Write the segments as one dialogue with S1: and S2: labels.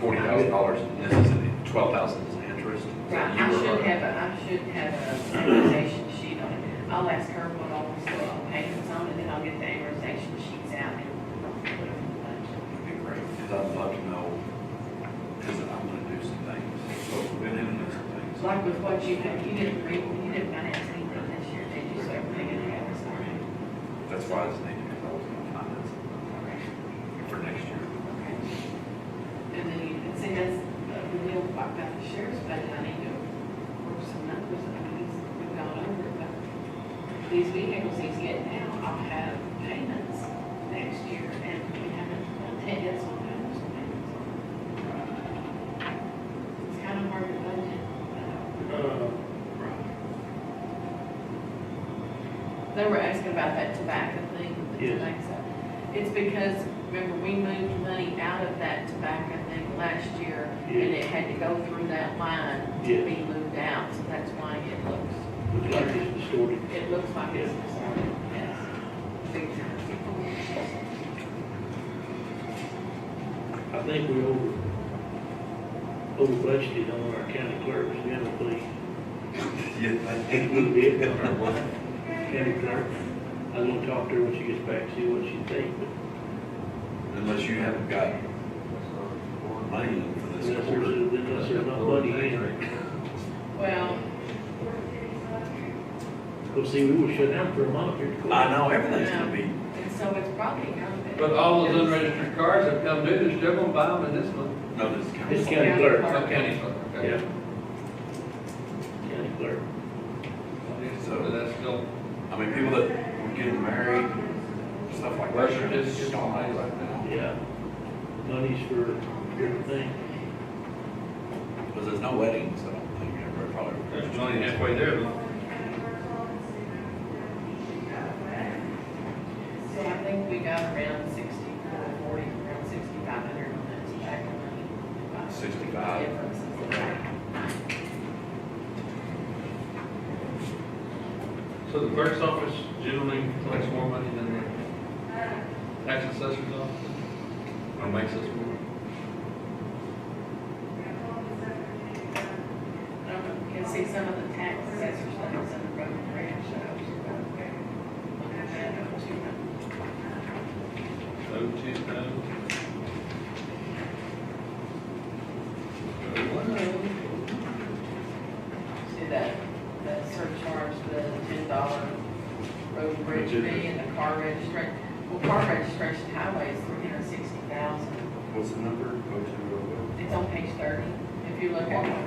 S1: forty thousand dollars, and this is twelve thousand is interest. So
S2: Right,
S1: you
S2: I
S1: were-
S2: should have, a- I should have a amortization sheet on it. I'll ask her what all the soil payments on, and then I'll get the amortization sheets out and put it in the budget.
S1: That'd be great, because I'd love to know, because I'm gonna do some things, so we're gonna do some things.
S2: Like with what you had, you didn't read, you didn't finance anything this year, did you? So everything in there was already.
S1: That's why I was thinking, if I was gonna finance it for next year.
S2: Okay. And then you, and see, that's, uh, the deal about the sheriff's budget, I need to work some numbers, I mean, he's, we've gone over, it, but these vehicles he's getting now, I'll have payments next year, and we haven't, I'll take this one, I have some payments on it. It's kind of hard to budget, but
S3: Uh,
S2: they were asking about that tobacco thing, the
S3: Yes.
S2: tobacco. It's because, remember, we moved money out of that tobacco thing last year, and
S3: Yes.
S2: it had to go through that line to
S3: Yes.
S2: be moved out, so that's why it looks,
S3: Looks like it's distorted.
S2: it looks like it's
S3: Yes.
S2: distorted, yes. Big time.
S3: I think we over, over budgeted on our county clerk's general fee.
S1: Yeah, I
S3: I think we did on our one county clerk. I was gonna talk to her when she gets back, see what she thinks, but
S1: Unless you haven't got money for this
S3: unless
S1: quarter.
S3: there's, unless there's not money in it.
S2: Well,
S3: Well, see, we were shut down for a month here.
S1: I know, everything's gonna be,
S2: and so it's probably out there.
S4: But all those unregistered cars that come due, they're still gonna buy them in this month.
S1: no, this county.
S3: It's county clerk.
S4: Oh, county clerk,
S3: Yeah.
S4: okay.
S3: County clerk.
S4: So that's still,
S1: I mean, people that were getting married, stuff like that.
S4: Well, it's just- it's all money like that.
S3: Yeah. Money's for everything.
S1: Because there's no weddings, so I don't think everybody probably.
S4: there's money halfway there.
S2: So I think we got around sixty-four, forty, around sixty-five hundred on that tobacco money.
S1: 65.
S2: Difference is about-
S4: So the clerk's office generally collects more money than the tax assessor's office? Or makes us more?
S2: I don't know, you can see some of the tax assessors, like some of the road and bridge shows. We'll have that up to them.
S4: Oh, two thousand. Oh,
S2: See that, that surcharge, the ten dollar road and bridge
S1: Which is-
S2: fee and the car registration. Well, car registration highway is three hundred sixty thousand.
S1: What's the number? Go to.
S2: It's on page thirty. If you look at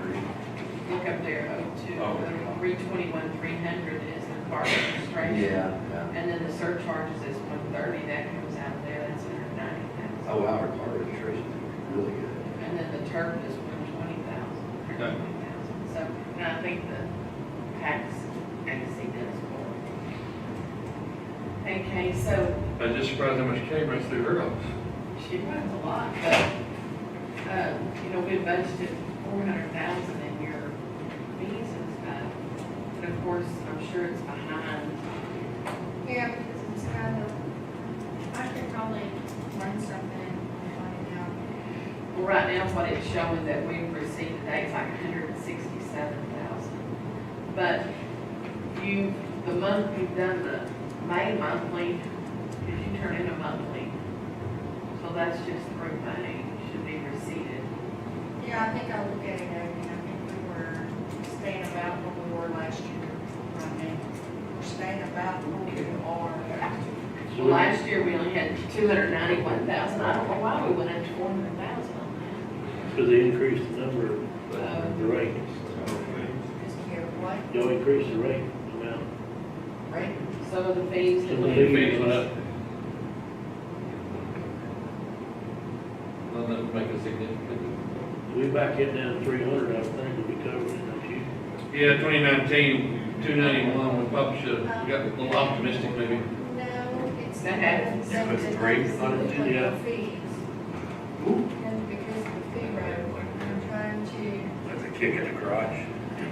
S2: Look up there, oh, two,
S1: Oh.
S2: the three twenty-one, three hundred is the car registration.
S1: Yeah,
S2: And then the surcharges is one thirty, that comes out of there, that's hundred ninety thousand.
S1: Oh, our car registration is really good.
S2: And then the turf is one twenty thousand, one hundred twenty thousand. So, and I think the tax agency does for it. Okay, so
S4: I was just surprised how much came runs through her office.
S2: She runs a lot, but, um, you know, we budgeted four hundred thousand in your fees and stuff. But of course, I'm sure it's behind.
S5: Yeah, because it's kind of, I could probably run something and find out.
S2: Well, right now, what it's showing that we've received today is like hundred and sixty-seven thousand. But you, the month you've done the May monthly, if you turn in a monthly, so that's just through May, should be receipted.
S5: Yeah, I think I will get it, I mean, I think we were staying about what we were last year, right now. We're staying about what we are.
S3: So
S2: Well, Last year, we only had two hundred ninety-one thousand, I don't know why we went up to four hundred thousand Um, on
S3: Because they increased the number,
S2: Uh,
S3: of the rate.
S5: Just care what,
S3: Y'all increased the rate amount.
S5: right?
S2: that. Some of the fees that
S3: Some of
S2: we,
S3: the
S4: Fees went up. Well, that would make a significant.
S3: We back it down to three hundred, I think, we'll be covered in a few.
S4: Yeah, 2019, 291, we probably should have got a little optimistic maybe.
S5: No, it's.
S2: That happens.
S5: that-
S1: If it's great,
S5: that's
S1: not a-
S5: the way
S3: yeah.
S5: it Fees. And because of the fee rate, we're trying to.
S1: That's a kick in the garage.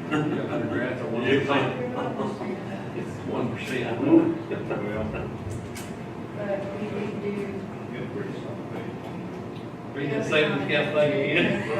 S4: Congrats, one
S1: Yeah.
S4: percent.
S5: we're not gonna do that,
S4: One percent.
S5: But we do do
S4: Good Read that statement, Cathleen.